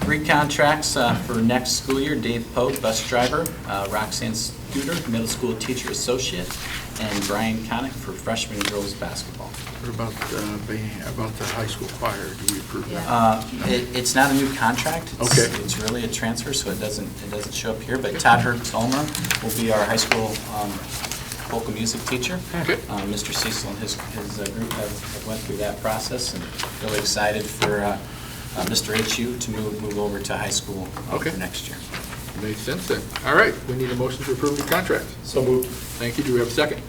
three contracts uh, for next school year. Dave Pope, bus driver, uh, Roxanne Studer, middle school teacher associate, and Brian Connick for freshman girls basketball. What about, uh, ba- about the high school choir, do we approve that? Uh, it- It's not a new contract. It's- Okay. It's really a transfer, so it doesn't, it doesn't show up here, but Todd Herb-Tolmer will be our high school um, vocal music teacher. Okay. Uh, Mr. Cecil and his, his uh, group have have went through that process, and really excited for uh, uh, Mr. HU to move, move over to high school uh, Okay. for next year. Makes sense then. All right, we need a motion to approve the contract. So moved. Thank you. Do we have a second?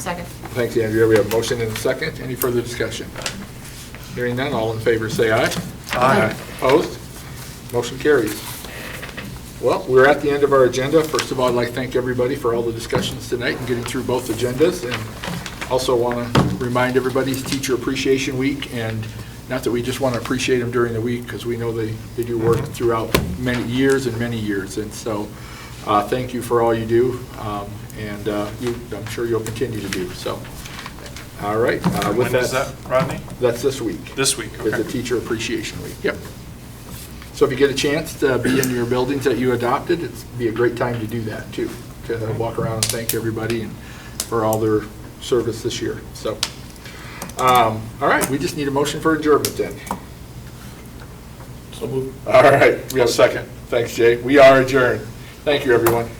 Second. Thanks, Andrea. We have a motion and a second. Any further discussion? Hearing none, all in favor, say aye. Aye. Opposed? Motion carries. Well, we're at the end of our agenda. First of all, I'd like to thank everybody for all the discussions tonight and getting through both agendas. And also want to remind everybody, it's Teacher Appreciation Week, and not that we just want to appreciate them during the week, because we know they, they do work throughout many years and many years. And so, uh, thank you for all you do, um, and uh, you, I'm sure you'll continue to do, so. All right. uh, with When is that, Rodney? That's this week. This week, It's a okay. Teacher Appreciation Week, yep. So if you get a chance to be in your buildings that you adopted, it'd be a great time to do that, too, to walk around and thank everybody and for all their service this year, so. um, All right, we just need a motion for adjournment then. So moved. All right, we have a second. Thanks, Jay. We are adjourned. Thank you, everyone.